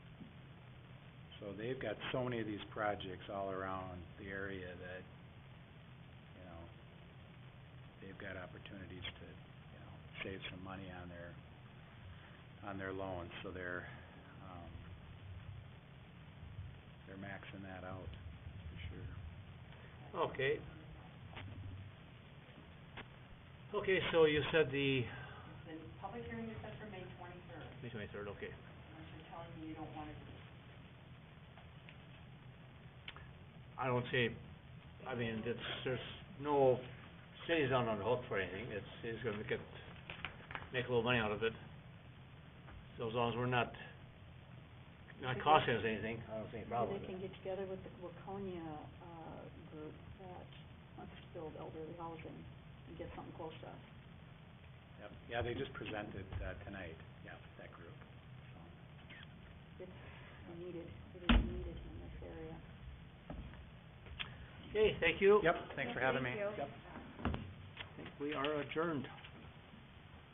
So they've got so many of these projects all around the area that, you know, they've got opportunities to, you know, save some money on their, on their loans, so they're, um, they're maxing that out, for sure. Okay. Okay, so you said the... The public hearing is set for May twenty-third. May twenty-third, okay. Unless you're telling me you don't wanna do it. I don't see, I mean, it's, there's no, city's not on the hook for anything, it's, he's gonna make it, make a little money out of it. So as long as we're not, not costing us anything, I don't see any problem with Maybe they it. can get together with the Waconia, uh, group that wants to build elderly housing and get something close to us. Yep, yeah, they just presented, uh, tonight, yeah, that group, so. It's needed, it is needed in this area. Okay, thank you. Yep, thanks for having me. Thank you. Yep. think we are adjourned.